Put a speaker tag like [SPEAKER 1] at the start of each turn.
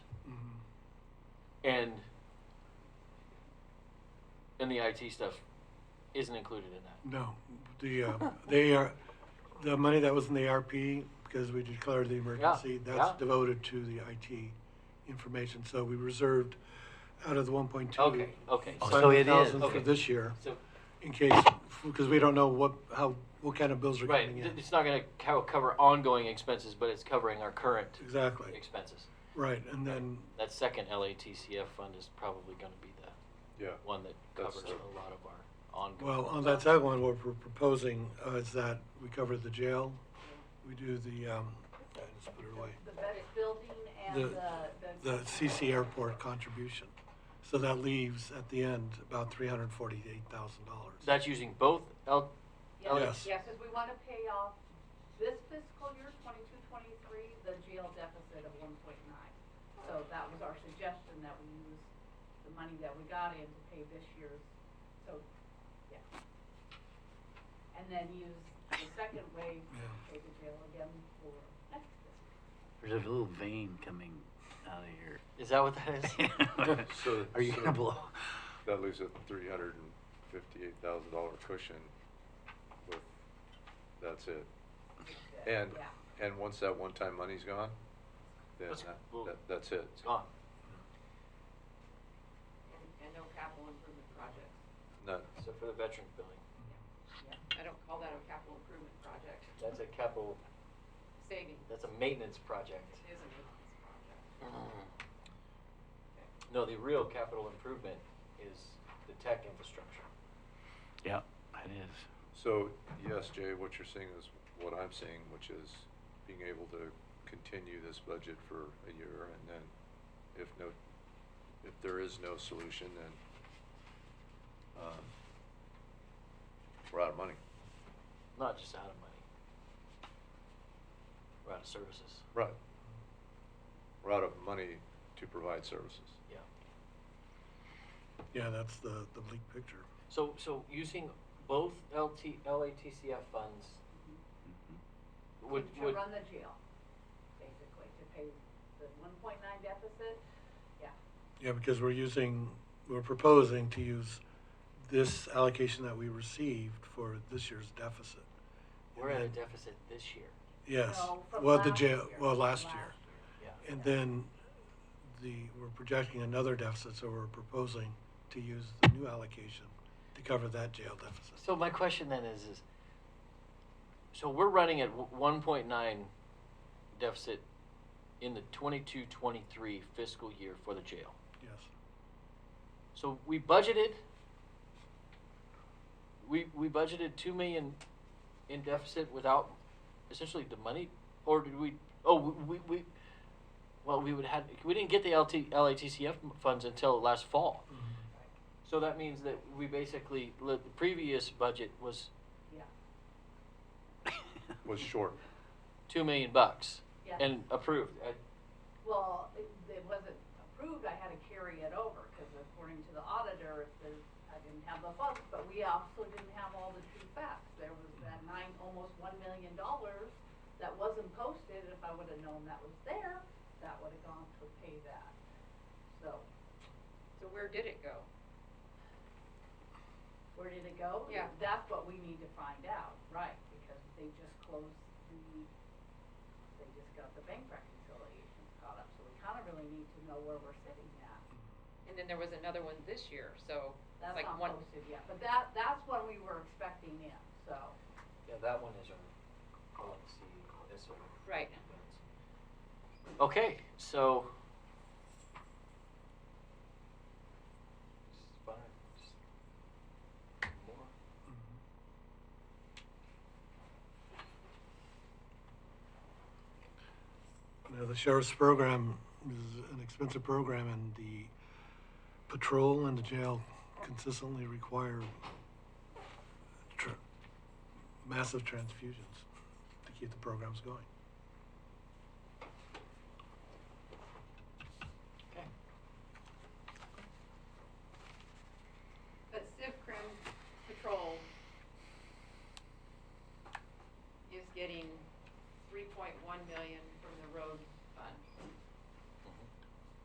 [SPEAKER 1] and and the IT stuff isn't included in that.
[SPEAKER 2] No, the, uh, they are, the money that was in the RP, because we declared the emergency,
[SPEAKER 1] yeah.
[SPEAKER 2] that's devoted to the IT information, so we reserved out of the one point two.
[SPEAKER 1] Okay, okay.
[SPEAKER 3] Oh, so it is.
[SPEAKER 2] For
[SPEAKER 1] Okay.
[SPEAKER 2] this year,
[SPEAKER 1] So,
[SPEAKER 2] in case, because we don't know what, how, what kind of bills are
[SPEAKER 1] right,
[SPEAKER 2] coming
[SPEAKER 1] th-
[SPEAKER 2] in.
[SPEAKER 1] it's not gonna co- cover ongoing expenses, but it's covering our current
[SPEAKER 2] Exactly,
[SPEAKER 1] expenses.
[SPEAKER 2] right, and then,
[SPEAKER 1] That second LATCF fund is probably gonna be the
[SPEAKER 4] Yeah.
[SPEAKER 1] one that
[SPEAKER 4] That's
[SPEAKER 1] covers
[SPEAKER 4] the-
[SPEAKER 1] a lot of our ongoing.
[SPEAKER 2] well, on that second one, what we're proposing uh, is that we cover the jail, we do the, um, I just put it away.
[SPEAKER 5] The vet building
[SPEAKER 2] the,
[SPEAKER 5] and
[SPEAKER 2] the
[SPEAKER 5] the.
[SPEAKER 2] CC airport contribution. So that leaves at the end about three hundred forty-eight thousand dollars.
[SPEAKER 1] That's using both L,
[SPEAKER 2] Yes.
[SPEAKER 1] Oh,
[SPEAKER 5] Yes, yes, because we want to pay off this fiscal year, twenty-two, twenty-three, the GL deficit of one point nine. So that was our suggestion, that we use the money that we got in to pay this year's, so, yeah. And then use the second wave to
[SPEAKER 2] Yeah.
[SPEAKER 5] pay the jail again for next fiscal.
[SPEAKER 3] There's a little vein coming out
[SPEAKER 1] is that what that
[SPEAKER 3] of
[SPEAKER 1] is?
[SPEAKER 3] your.
[SPEAKER 4] So-
[SPEAKER 3] Are you
[SPEAKER 4] so-
[SPEAKER 3] gonna blow?
[SPEAKER 4] That leaves a three hundred and fifty-eight thousand dollar cushion with, that's it. And,
[SPEAKER 5] Yeah.
[SPEAKER 4] and once that one-time money's gone, then
[SPEAKER 1] That's-
[SPEAKER 4] that,
[SPEAKER 1] well-
[SPEAKER 4] that- that's it.
[SPEAKER 1] It's gone.
[SPEAKER 5] And, and no capital improvement projects.
[SPEAKER 4] None.
[SPEAKER 1] So for the veterans building,
[SPEAKER 5] I don't call that a capital improvement project,
[SPEAKER 1] that's a capital,
[SPEAKER 5] savings
[SPEAKER 1] that's a maintenance project.
[SPEAKER 5] is a maintenance project.
[SPEAKER 1] No, the real capital improvement is the tech infrastructure.
[SPEAKER 3] Yeah, it is.
[SPEAKER 4] So, yes, Jay, what you're seeing is what I'm seeing, which is being able to continue this budget for a year and then if no, if there is no solution, then, um, we're out of money.
[SPEAKER 1] Not just out of money. We're out of services.
[SPEAKER 4] Right. We're out of money to provide services.
[SPEAKER 1] Yeah.
[SPEAKER 2] Yeah, that's the, the bleak picture.
[SPEAKER 1] So, so using both LT, LATCF funds
[SPEAKER 3] Mm-hmm.
[SPEAKER 1] would,
[SPEAKER 5] To
[SPEAKER 1] would.
[SPEAKER 5] run the jail, basically, to pay the one point nine deficit, yeah.
[SPEAKER 2] Yeah, because we're using, we're proposing to use this allocation that we received for this year's deficit.
[SPEAKER 1] We're at a deficit this year.
[SPEAKER 2] Yes,
[SPEAKER 5] No, from
[SPEAKER 2] well, the
[SPEAKER 5] last
[SPEAKER 2] jail,
[SPEAKER 5] year,
[SPEAKER 2] well,
[SPEAKER 5] from
[SPEAKER 2] last
[SPEAKER 5] last
[SPEAKER 2] year.
[SPEAKER 1] Yeah.
[SPEAKER 2] And then the, we're projecting another deficit, so we're proposing to use the new allocation to cover that jail deficit.
[SPEAKER 1] So my question then is, is, so we're running at one point nine deficit in the 22-23 fiscal year for the jail.
[SPEAKER 2] Yes.
[SPEAKER 1] So we budgeted. We we budgeted two million in deficit without essentially the money, or did we? Oh, we we. Well, we would had we didn't get the LT, LATCF funds until last fall, so that means that we basically the previous budget was
[SPEAKER 5] Yeah,
[SPEAKER 4] Was short.
[SPEAKER 1] two million bucks
[SPEAKER 5] Yeah.
[SPEAKER 1] and approved. I,
[SPEAKER 5] well, it, it wasn't approved, I had to carry it over, because according to the auditor, if there's, I didn't have the funds, but we also didn't have all the true facts. There was that nine, almost one million dollars that wasn't posted, if I would've known that was there, that would've gone to pay that, so.
[SPEAKER 6] So where did it go?
[SPEAKER 5] Where did it go?
[SPEAKER 6] Yeah.
[SPEAKER 5] That's what we need to find out, right, because they just closed the, they just got the bank reconciliations caught up, so we kind of really need to know where we're sitting at.
[SPEAKER 6] And then there was another one this year, so it's
[SPEAKER 5] That's
[SPEAKER 6] like
[SPEAKER 5] not
[SPEAKER 6] one.
[SPEAKER 5] posted yet, but that, that's what we were expecting in, so,
[SPEAKER 1] yeah, that one is our policy. This one.
[SPEAKER 6] Right.
[SPEAKER 1] Okay, so. Just fine, just more.
[SPEAKER 2] Mm-hmm. Now, the sheriff's program is an expensive program, and the patrol and the jail consistently require tr- massive transfusions to keep the programs going.